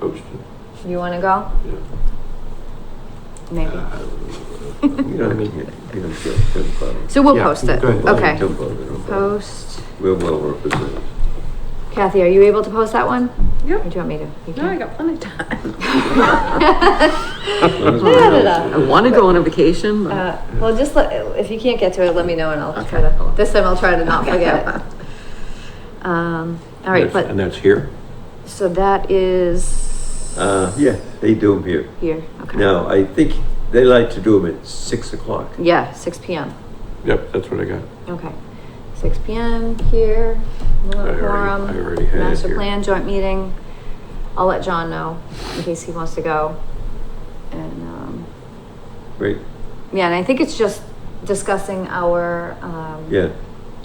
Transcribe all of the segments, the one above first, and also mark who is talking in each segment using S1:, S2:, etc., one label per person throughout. S1: Coach,
S2: You want to go?
S1: yeah.
S2: Maybe.
S3: We don't need it, we don't feel good about it.
S2: So we'll
S1: Yeah,
S2: post it.
S1: go ahead.
S2: Okay.
S3: Don't bother, don't bother.
S2: Post.
S3: We're well represented.
S2: Kathy, are you able to post that one? Or do
S4: Yep.
S2: you want me to? You
S4: No, I
S2: can.
S4: got plenty of time.
S3: As
S2: Look at
S3: long as
S2: it up.
S3: we're
S5: I want to go on a vacation, but
S2: Uh, well, just let, if you can't get to it, let me know and I'll try
S5: Okay.
S2: to, this time I'll try to not forget it. Um, all right,
S3: That's- And
S2: but,
S3: that's here?
S2: so that is
S3: Uh, yeah, they do them here.
S2: here, okay.
S3: Now, I think they like to do them at six o'clock.
S2: Yeah, six P M.
S1: Yep, that's what I got.
S2: Okay, six P M here,
S1: already-
S2: quorum,
S1: I already had it
S2: master
S1: here.
S2: plan joint meeting. I'll let John know in case he wants to go. And, um,
S3: Right,
S2: yeah, and I think it's just discussing our, um,
S3: yeah.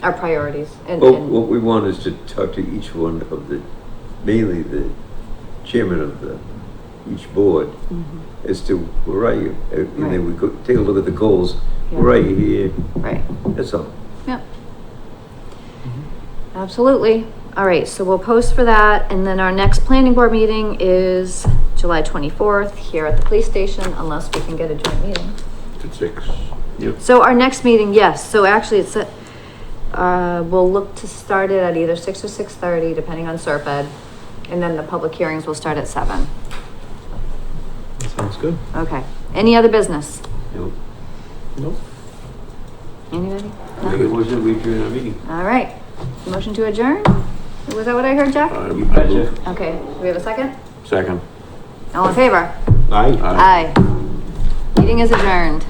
S2: our priorities and,
S1: Oh,
S3: Well,
S2: and-
S3: what we want is to talk to each one of the, mainly the chairman of the, each board, as to where are you? Uh, And then we go, take a look at the goals, where are you here?
S2: right,
S3: That's all.
S2: yep. Absolutely. All right, so we'll post for that and then our next planning board meeting is July twenty-fourth here at the police station unless we can get a joint meeting.
S1: It's six. Yep.
S2: So our next meeting, yes, so actually it's, at- uh, we'll look to start it at either six or six thirty, depending on SERP Ed. And then the public hearings will start at seven.
S1: That sounds good.
S2: Okay, any other business?
S3: No.
S1: Nope.
S2: Anybody?
S3: Make a motion, we adjourn our meeting.
S2: All right, motion to adjourn? Was that what I heard, Jack?
S1: Um, I move.
S2: Okay, do we have a second?
S1: Second.
S2: All in favor?
S3: Aye.
S2: Aye. Meeting is adjourned.